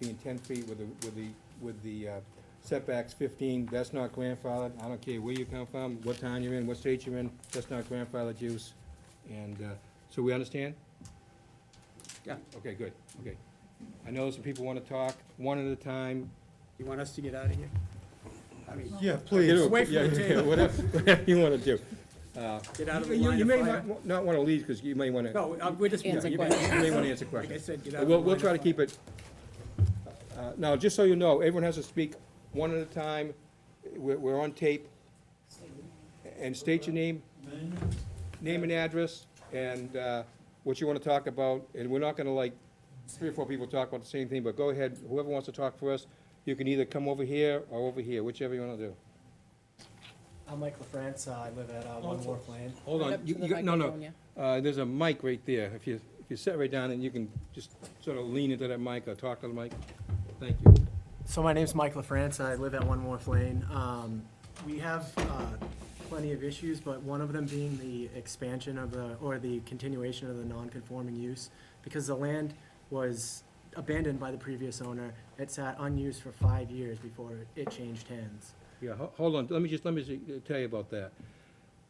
being ten feet with the, with the, with the uh, setbacks fifteen, that's not grandfathered, I don't care where you come from, what town you're in, what state you're in, that's not grandfathered use, and, uh, so we understand? Yeah. Okay, good, okay. I know some people wanna talk, one at a time. You want us to get out of here? I mean, Yeah, please. Away from the table. Whatever, whatever you wanna do. Uh, get out of the You, line you of may fire? not, not wanna leave, cause you may wanna, yeah, No, uh, we're just. you Answer may, questions. you may wanna answer Like I questions. said, get out of the We'll, line we'll of try to fire. keep it, uh, now, just so you know, everyone has to speak one at a time, we're, we're on tape. And state your name, name and address, and, uh, what you wanna talk about, and we're not gonna like, three or four people talk about the same thing, but go ahead, whoever wants to talk first, you can either come over here or over here, whichever you wanna do. I'm Mike LaFrance, uh, I live at uh, One Wharf Lane. Hold Right on, up to you, the you, got- no, no, microphone, yeah. Uh, there's a mic right there. If you, if you sit right down and you can just sort of lean into that mic or talk to the mic. Thank you. So my name's Mike LaFrance, I live at One Wharf Lane. Um, We have uh, plenty of issues, but one of them being the expansion of the, or the continuation of the non-conforming use, because the land was abandoned by the previous owner, it sat unused for five years before it changed hands. Yeah, ho- hold on, let me just, let me ju- tell you about that.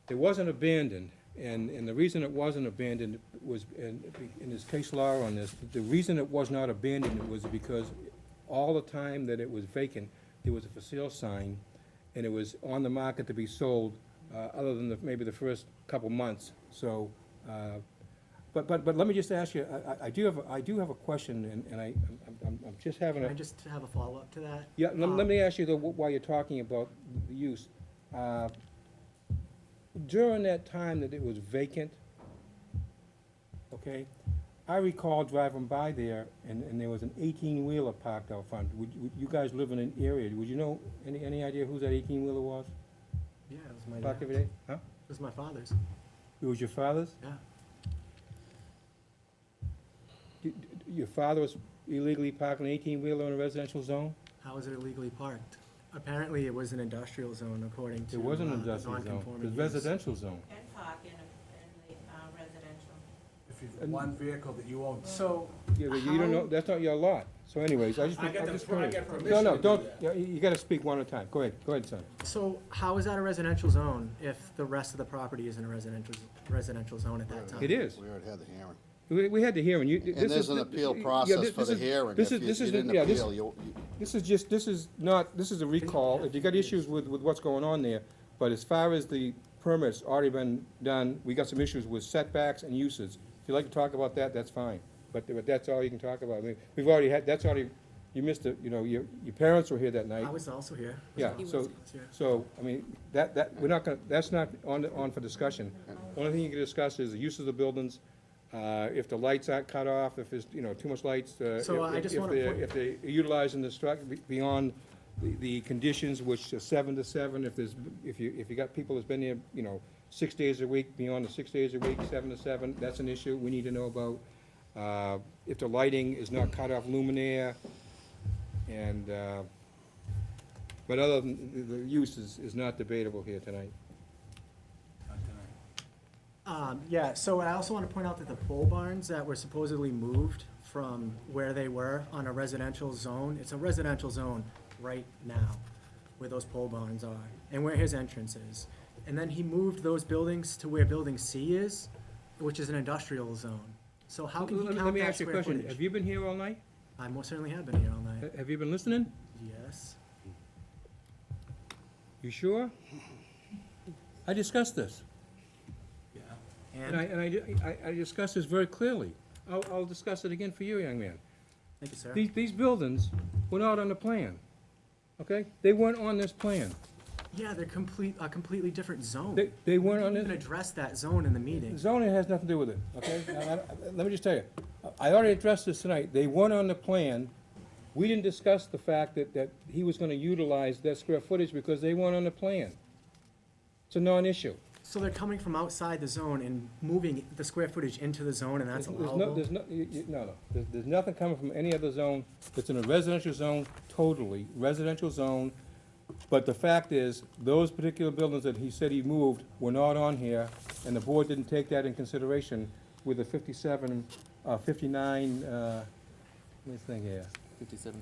It wasn't abandoned, and, and the reason it wasn't abandoned was, and in this case law on this, the reason it was not abandoned was because all the time that it was vacant, there was a for sale sign, and it was on the market to be sold, uh, other than the, maybe the first couple months, so, uh, but, but, but let me just ask you, I- I, I do have, a- I do have a question, and, and I, I'm- I'm, I'm just having Can a. I just have a follow-up to that? Yeah, let, let Um, me ask you though, wh- while you're talking about the use, uh, during that time that it was vacant, okay, I recall driving by there and, and there was an eighteen-wheeler parked out front. Would, would, you guys live in an area, would you know, any, any idea whose that eighteen-wheeler was, Yeah, it was my, parked it every day? Huh? was my father's, It was your father's? yeah. D- d- Your father was illegally parking an eighteen-wheeler in a residential zone? How was it illegally parked? Apparently, it was an industrial zone according to. It was an uh, the industrial zone, it non-conforming was use. residential zone. And park in, in the uh, residential. If you've And- one vehicle that you own. So, Yeah, but you don't know, that's not your lot. So anyways, I just, I I'm got the- just I curious. got permission No, no, to do don't, that. yeah, you you gotta speak one at a time. Go ahead, go ahead, son. so how is that a residential zone if the rest of the property isn't a residential, residential zone at that time? It is. We already had the hearing. We, we had the hearing. You, this is. And there's an appeal process for the hearing. This If is, you- this you is, didn't yeah, this, appeal, you- you- this is just, this is not, this is a recall. If you got issues with, with what's going on there, but as far as the permit's already been done, we got some issues with setbacks and uses. If you'd like to talk about that, that's fine. But, but that's all you can talk about. I mean, we've already had, that's already, you missed it, you know, your, your parents were here that night. I was also here. Yeah, He so, was- Yeah. so, I mean, that, that, we're not gonna, that's not on, on for discussion. Only thing you can discuss is the use of the buildings, uh, if the lights aren't cut off, if there's, you know, too much lights, uh, So I if, just if wanna they're, point- if they're utilizing the struct, be- beyond the, the conditions, which are seven to seven, if there's, if you, if you got people that's been there, you know, six days a week, beyond the six days a week, seven to seven, that's an issue we need to know about. Uh, if the lighting is not cut off luminaire, and, uh, but other than, the- the use is, is not debatable here tonight. Not tonight. Um, yeah, so I also want to point out that the pole barns that were supposedly moved from where they were on a residential zone, it's a residential zone right now, where those pole barns are, and where his entrance is. And then he moved those buildings to where building C is, which is an industrial zone. So how can Let he me- count Let me that ask you a square question. Have footage? you been here all night? I most certainly have been here all night, Ha- Have you been listening? yes. You sure? I discussed this, Yeah. and I, And, and I di- I, I discussed this very clearly. I'll, I'll discuss it again for you, young man. thank you, sir. These, these buildings were not on the plan, okay? They weren't on this plan. Yeah, they're complete, a completely different zone. They, they weren't on Didn't this. even address that zone in the meeting. Zoning has nothing to do with it, okay? Now, I- I- Let me just tell you, I already addressed this tonight, they weren't on the plan. We didn't discuss the fact that, that he was gonna utilize that square footage because they weren't on the plan. It's a non-issue. So they're coming from outside the zone and moving the square footage into the zone, and that's There's no, allowable? there's no, you- you- no, no, there's, there's nothing coming from any other zone, it's in a residential zone, totally, residential zone. But the fact is, those particular buildings that he said he moved were not on here, and the board didn't take that in consideration with the fifty-seven, uh, fifty-nine, uh, let me think here. fifty-seven